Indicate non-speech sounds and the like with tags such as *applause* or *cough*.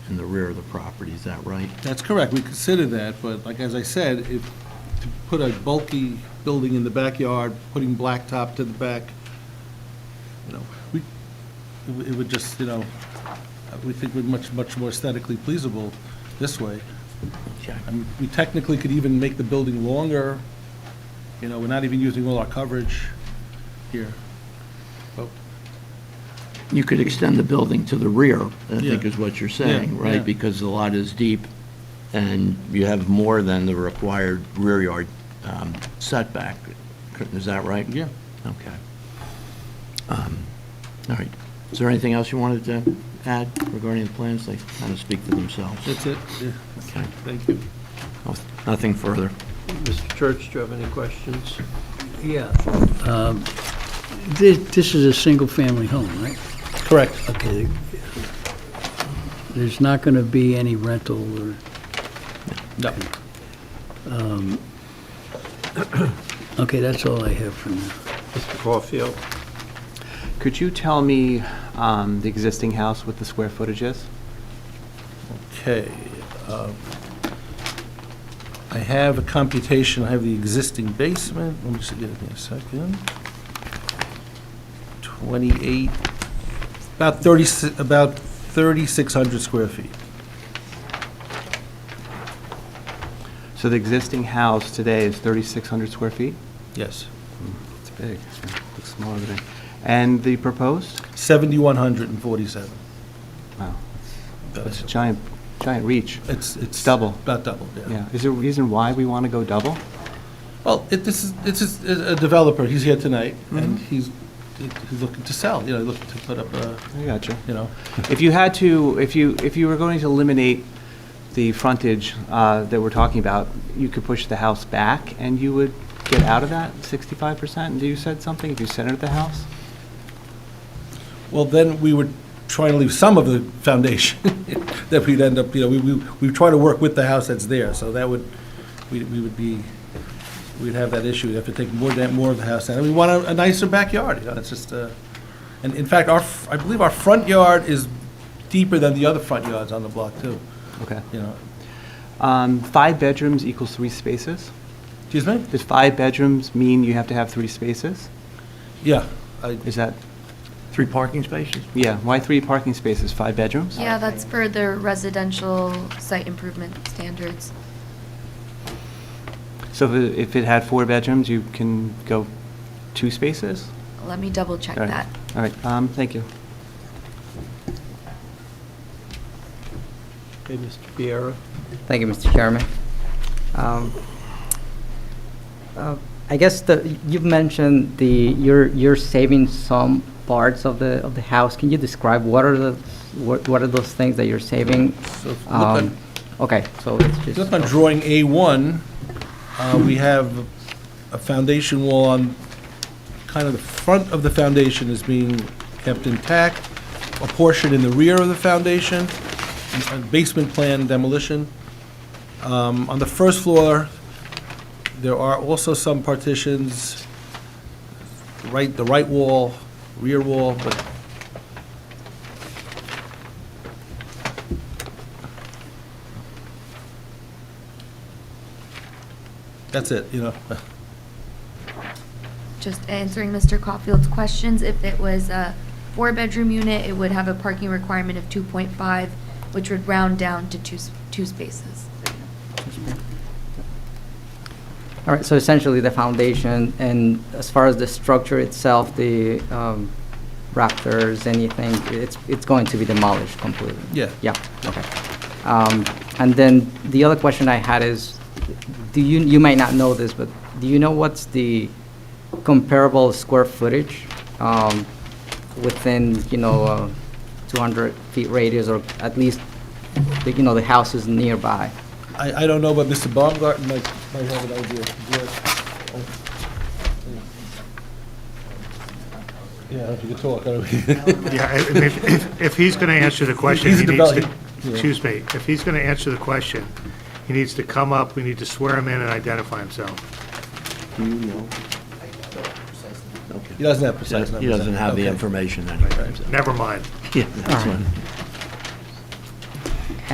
in the rear of the property, is that right? That's correct, we consider that, but like, as I said, if, to put a bulky building in the backyard, putting blacktop to the back, you know, we, it would- it would just, you know, we think we're much, much more aesthetically pleasurable this way. I mean, we technically could even make the building longer, you know, we're not even using all our coverage here. But You could extend the building to the rear, I think Yeah. is what you're saying, Yeah, right? yeah. Because the lot is deep, and you have more than the required rear yard um, setback. Is that right? Yeah. Okay. Um, All right. Is there anything else you wanted to add regarding the plans? They kind of speak for themselves. That's it, yeah, Okay. thank you. Nothing further. Mr. Church, do you have any questions? Yeah. um, thi- This is a single-family home, right? Correct. Okay. There's not going to be any rental or, No. okay, that's all I have for now. Mr. Caulfield? Could you tell me um, the existing house with the square footage is? Okay. um, I have a computation, I have the existing basement, let me just get it in a second. 28, about 30, about 3,600 square feet. So the existing house today is 3,600 square feet? Yes. It's big. Looks smaller than it. And the proposed? 7,147. Wow, that's That's- a giant, giant reach. It's, it's. Double. About double, yeah. Yeah, is there a reason why we want to go double? Well, it, this is, it's just a a developer, he's here tonight, and Mm-hmm. he's, he's looking to sell, you know, looking to put up a, I gotcha. you know, If you had to, if you, if you were going to eliminate the frontage uh, that we're talking about, you could push the house back and you would get out of that 65%? Do you said something, if you centered the house? Well, then we would try to leave some of the foundation *laughs* that we'd end up, you know, we, we, we try to work with the house that's there, so that would, we, we would be, we'd have that issue, we'd have to take more, than- more of the house down, and we want a- a nicer backyard, you know, it's just, uh, and in fact, our, f- I believe our front yard is deeper than the other front yards on the block too, Okay. you know. Um, Five bedrooms equals three spaces? Excuse me? Does five bedrooms mean you have to have three spaces? Yeah, I, Is that, Three parking spaces? yeah, why three parking spaces, five bedrooms? Yeah, that's for the residential site improvement standards. So if it- if it had four bedrooms, you can go two spaces? Let me double check All right. that. All right, um, thank you. Okay, Mr. Viera? Thank you, Mr. Chairman. Um, uh, I guess the, you've mentioned the, you're, you're saving some parts of the, of the house. Can you describe what are the, what what are those things that you're saving? so if you look at- Um, Okay, so it's If just. you Look on drawing A1, uh, we have a foundation wall on, kind of the front of the foundation is being kept intact, a portion in the rear of the foundation, a basement plan demolition. Um, On the first floor, there are also some partitions, right, the right wall, rear wall, but that's it, you know. *laughs* Just answering Mr. Caulfield's questions, if it was a four-bedroom unit, it would have a parking requirement of 2.5, which would round down to two, s- two spaces. All right, so essentially the foundation, and as far as the structure itself, the um, rafters, anything, it's, it's going to be demolished completely? Yeah. Yeah, okay. Um, And then the other question I had is, do you, you might not know this, but do you know what's the comparable square footage um, within, you know, uh, 200 feet radius, or at least, the, you know, the houses nearby? I, I don't know, but Mr. Baumgarten might, might have an idea. Yeah, Yeah, if you could talk, I *laughs* don't- Yeah, I- I mean, if, if- if he's going to answer the question, He's he the needs devel- to, yeah. excuse me, if he's going to answer the question, he needs to come up, we need to swear him in and identify himself. he doesn't have precise numbers. He doesn't have the Okay. information anyway. so- Never mind. Yeah, that's fine.